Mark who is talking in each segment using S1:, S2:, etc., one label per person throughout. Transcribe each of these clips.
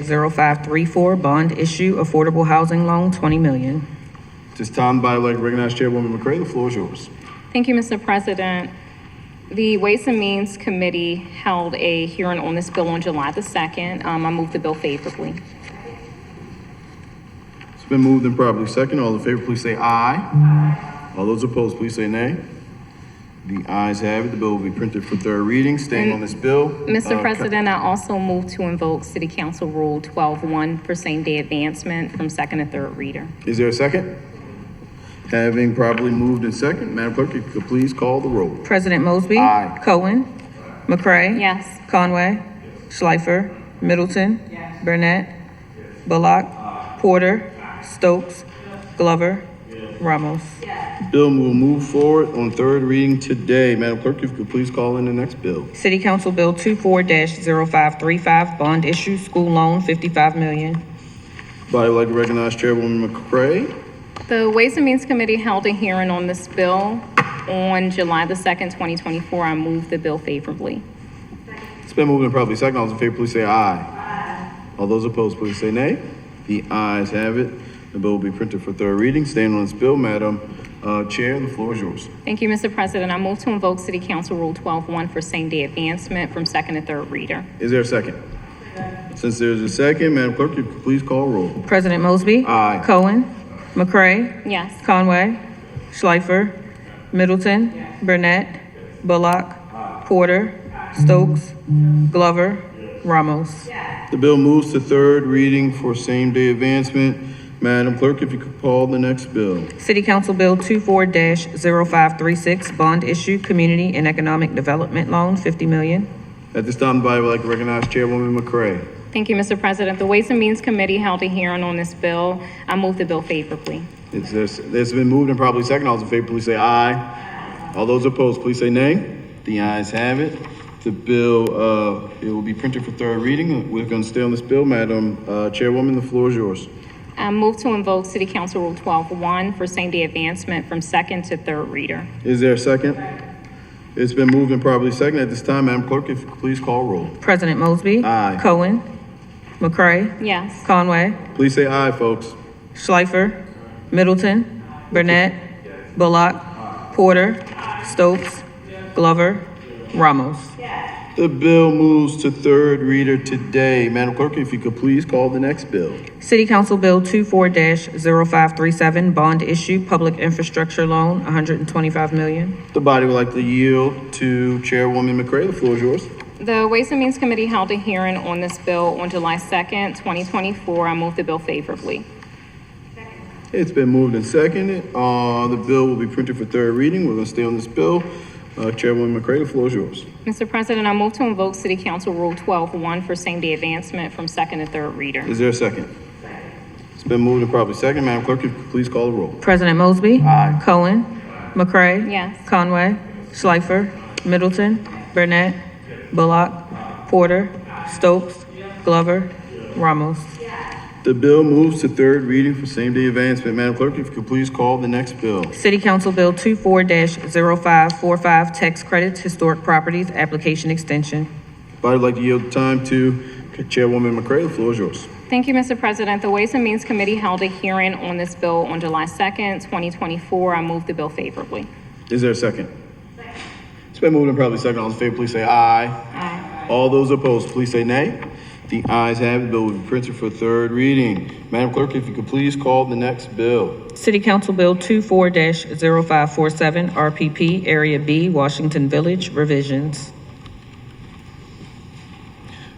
S1: 24-0534, bond issue, affordable housing loan, 20 million.
S2: This time, body like to recognize Chairwoman McCray. The floor is yours.
S3: Thank you, Mr. President. The Ways and Means Committee held a hearing on this bill on July the 2nd. Um, I moved the bill favorably.
S2: It's been moved and properly second. All in favor, please say aye. Aye. All those opposed, please say nay. The ayes have it. The bill will be printed for third reading. Staying on this bill. uh,
S3: Mr.
S2: Ca-
S3: President, I also moved to invoke City Council Rule 12-1 for same-day advancement from second to third reader.
S2: Is there a second? Having properly moved and second, Madam Clerk, if you could please call the roll.
S1: President Mosby.
S2: Aye.
S1: Cohen. McCray.
S3: Yes.
S1: Conway. Schleifer. Middleton. Burnett. Bullock. Porter. Stokes. Glover. Ramos.
S2: Bill will move forward on third reading today. Madam Clerk, if you could please call in the next bill.
S1: City Council Bill 24-0535, bond issue, school loan, 55 million.
S2: Body would like to recognize Chairwoman McCray.
S3: The Ways and Means Committee held a hearing on this bill on July the 2nd, 2024. I moved the bill favorably.
S2: It's been moved and properly second. All those in favor, please say aye. Aye. All those opposed, please say nay. The ayes have it. The bill will be printed for third reading. Staying on this bill, Madam uh, Chair, the floor is yours.
S3: Thank you, Mr. President. I moved to invoke City Council Rule 12-1 for same-day advancement from second to third reader.
S2: Is there a second? Since there's a second, Madam Clerk, if you could please call roll.
S1: President Mosby.
S2: Aye.
S1: Cohen. McCray.
S3: Yes.
S1: Conway. Schleifer. Middleton. Burnett. Bullock. Porter. Stokes. Glover. Ramos.
S2: The bill moves to third reading for same-day advancement. Madam Clerk, if you could call the next bill.
S1: City Council Bill 24-0536, bond issue, community and economic development loan, 50 million.
S2: At this time, the body would like to recognize Chairwoman McCray.
S3: Thank you, Mr. President. The Ways and Means Committee held a hearing on this bill. I move the bill favorably.
S2: It's, there's, it's been moved and probably second. All those in favor, please say aye. All those opposed, please say nay. The ayes have it. The bill, uh, it will be printed for third reading. We're gonna stay on this bill. Madam, uh, Chairwoman, the floor is yours.
S3: I move to invoke City Council Rule 12-1 for same-day advancement from second to third reader.
S2: Is there a second? It's been moved and probably second. At this time, Madam Clerk, if you could please call roll.
S1: President Mosby.
S2: Aye.
S1: Cohen. McCray.
S3: Yes.
S1: Conway.
S2: Please say aye, folks.
S1: Schleifer. Middleton. Burnett. Bullock. Porter. Stokes. Glover. Ramos.
S2: The bill moves to third reader today. Madam Clerk, if you could please call the next bill.
S1: City Council Bill 24-0537, bond issue, public infrastructure loan, 125 million.
S2: The body would like to yield to Chairwoman McCray. The floor is yours.
S3: The Ways and Means Committee held a hearing on this bill on July 2nd, 2024. I move the bill favorably.
S2: It's been moved and seconded. Uh, the bill will be printed for third reading. We're gonna stay on this bill. Uh, Chairwoman McCray, the floor is yours.
S3: Mr. President, I move to invoke City Council Rule 12-1 for same-day advancement from second to third reader.
S2: Is there a second? It's been moved and properly second. Madam Clerk, if you could please call the roll.
S1: President Mosby.
S2: Aye.
S1: Cohen. McCray.
S3: Yes.
S1: Conway. Schleifer. Middleton. Burnett. Bullock. Porter. Stokes. Glover. Ramos.
S2: The bill moves to third reading for same-day advancement. Madam Clerk, if you could please call the next bill.
S1: City Council Bill 24-0545, tax credits, historic properties, application extension.
S2: Body would like to yield time to Chairwoman McCray. The floor is yours.
S3: Thank you, Mr. President. The Ways and Means Committee held a hearing on this bill on July 2nd, 2024. I move the bill favorably.
S2: Is there a second? It's been moved and probably second. All in favor, please say aye. Aye. All those opposed, please say nay. The ayes have it. The Bill will be printed for third reading. Madam Clerk, if you could please call the next bill.
S1: City Council Bill 24-0547, RPP, Area B, Washington Village, revisions.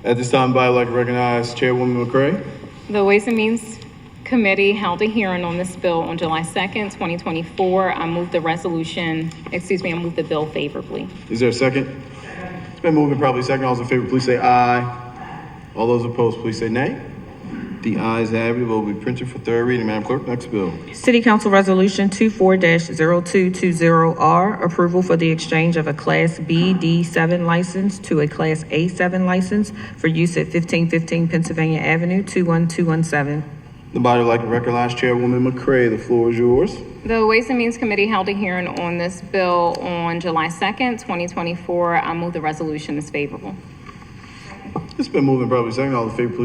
S2: At this time, I'd like to recognize Chairwoman McCray.
S3: The Ways and Means Committee held a hearing on this bill on July 2nd, 2024. I move the resolution, excuse me, I move the bill favorably.
S2: Is there a second? It's been moved and probably second. All those in favor, please say aye. All those opposed, please say nay. The ayes have it. The Bill will be printed for third reading. Madam Clerk, next bill.
S1: City Council Resolution 24-0220R, approval for the exchange of a Class B D7 license to a Class A7 license for use at 1515 Pennsylvania Avenue, 21217.
S2: The body would like to recognize Chairwoman McCray. The floor is yours.
S3: The Ways and Means Committee held a hearing on this bill on July 2nd, 2024. I move the resolution is favorable.
S2: It's been moved and probably second. All in favor, please